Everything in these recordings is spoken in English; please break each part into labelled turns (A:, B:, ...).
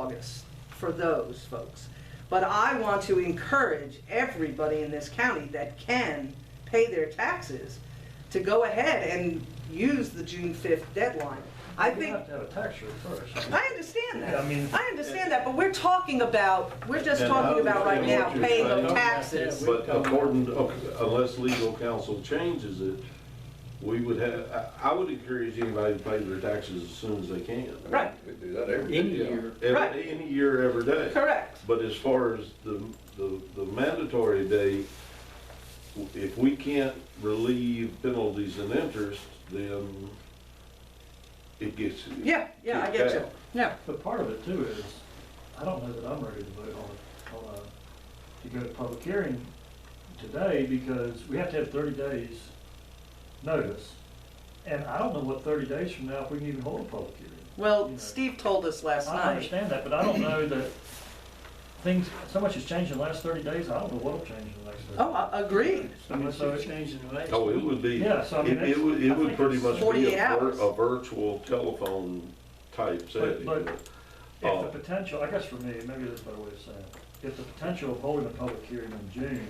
A: August for those folks. But I want to encourage everybody in this county that can pay their taxes to go ahead and use the June 5th deadline. I
B: You
A: think,
B: have to have a tax rate first.
A: I understand that.
B: Yeah, I mean-
A: I understand that, but we're talking about, we're just
C: And
A: talking
C: I
A: about right now
C: understand what
A: paying
C: you're
A: the
C: saying.
A: taxes.
C: But according, to- okay, unless legal counsel changes it, we would have, I, I would encourage anybody to pay their taxes as soon as they can.
A: Right,
D: We do that every
B: Any
D: year.
B: year,
A: Right.
C: Every, any year, every day.
A: correct.
C: But as far as the, the, the mandatory day, if we can't relieve penalties and interest, then it gets.
A: Yeah, yeah, I get you. Yeah.
B: but part of it too is, I don't know that I'm ready to vote on, a- on a, to go to public hearing today because we have to have thirty days notice. And I don't know what thirty days from now, if we can even hold a public hearing.
A: Well,
B: You know.
A: Steve told us last
B: I
A: night.
B: understand that, but I don't know that things, so much has changed in the last thirty days, I don't know what'll change in the next thirty.
A: Oh, I- agreed.
B: I mean, so it's-
C: Oh, it would be,
B: Yeah, so I mean,
C: it, it would,
B: that's-
C: it
B: I
C: would
B: think
C: pretty
B: it's
C: much be
A: 48
C: a, vir-
A: hours.
C: a virtual telephone type setting.
B: but-
C: Uh,
B: If the potential, I guess for me, maybe there's a better way of saying it, if the potential of holding a public hearing in June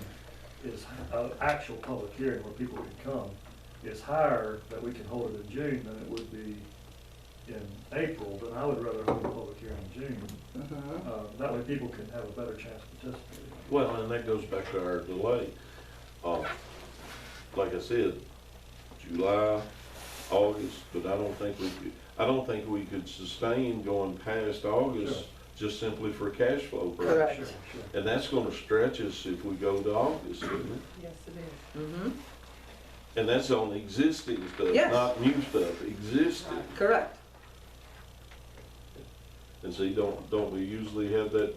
B: is, an actual public hearing where people can come, is higher that we can hold it in June than it would be in April, then I would rather hold a public hearing in June. Uh, That way people can have a better chance of participating.
C: Well, and that goes back to our delay. Uh, Like I said, July, August, but I don't think we could, I don't think we could sustain going past August
B: Sure.
C: just simply for cash flow
A: Correct.
C: purposes.
B: Sure, sure.
C: And that's gonna stretch us if we go to August, isn't it?
E: Yes, it is.
B: Mm-hmm.
A: Mhm.
C: And that's on existing stuff,
A: Yes.
C: not new stuff, existing.
A: Correct.
C: And see, don't, don't we usually have that,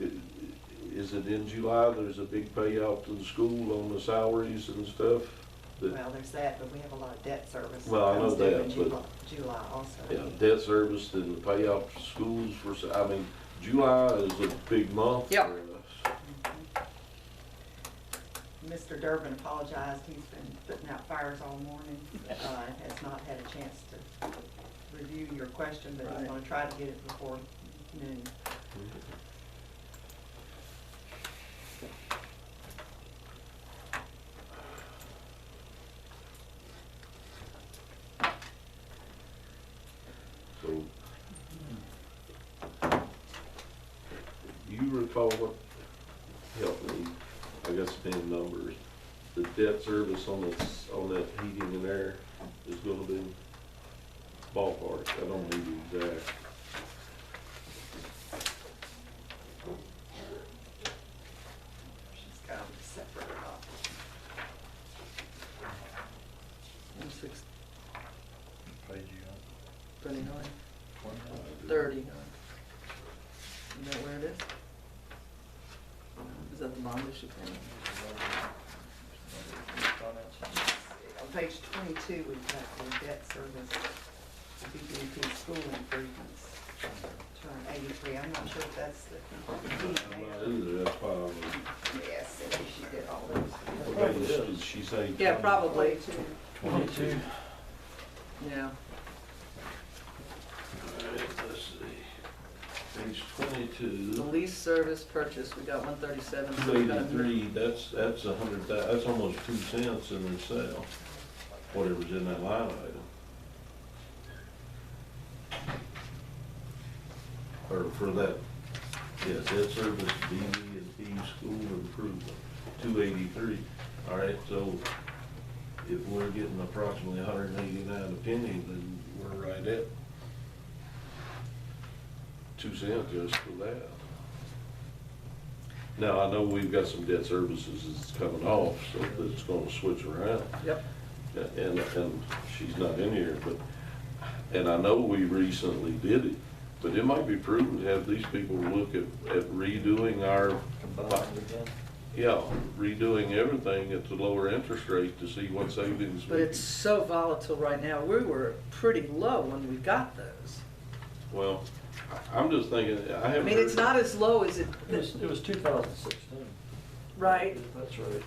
C: i- is it in July, there's a big payout to the school on the salaries and stuff? that-
E: Well, there's that, but we have a lot of debt service.
C: Well, I know
E: comes due in
C: that, but-
E: July- July also.
C: Yeah, debt service and the payout for schools for, I mean, July is a big month for
A: Yeah.
C: us.
E: Mr. Durbin apologized, he's been putting out fires all morning, uh, has not had a chance to review your question, but he's
A: Right.
E: gonna try to get it before noon.
C: So. You recall what, help me, I guess being numbers, the debt service on this, on that heating and air is gonna be ballpark, I don't need the exact.
E: She's got them separated off.
A: One six
B: Page you
A: thirty-nine,
B: on, one.
A: thirty-nine. You know where it is? Is that the bond issue?
E: On page twenty-two, we've got the debt service, the BBP school improvements, turn eighty-three, I'm not sure if that's
C: I'm not
E: the.
C: either, that's why I'm-
E: Yes, it is. she did all those.
B: Probably
C: Did
B: is.
C: she say?
A: Yeah, probably,
E: Twenty-two.
C: Twenty-two.
B: Twenty-two.
A: yeah.
C: Alright, let's see. Page
A: The
C: twenty-two,
A: lease service purchase, we got one thirty-seven.
C: eighty-three, that's, that's a hundred thou, that's almost two cents in the sale, whatever's in that line item. Or for that, yeah, debt service, DD and P school improvement, two eighty-three. All right, so if we're getting approximately a hundred and eighty-nine a penny, then we're right at two cents just for that. Now, I know we've got some debt services that's coming off, so that's gonna switch around.
A: Yep.
C: And, and she's not in here, but, and I know we recently did it, but it might be prudent to have these people look at, at redoing our,
B: Combined again.
C: yeah, redoing everything at the lower interest rate to see what savings. we
A: But it's so volatile right now, we were pretty low when we got those.
C: can- Well, I- I'm just thinking, I
A: I
C: haven't.
A: mean, it's
C: heard-
A: not as low as it,
B: It was, it was two thousand sixteen.
A: right,
B: That's right,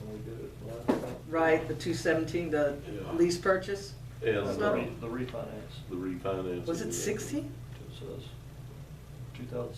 B: when we did it. last time.
A: right, the two seventeen, the
C: Yeah.
A: lease purchase,
C: And
B: The
A: It's not-
C: the
B: re- the refinance,
C: refinance.
A: was it sixteen?
B: it says. two thousand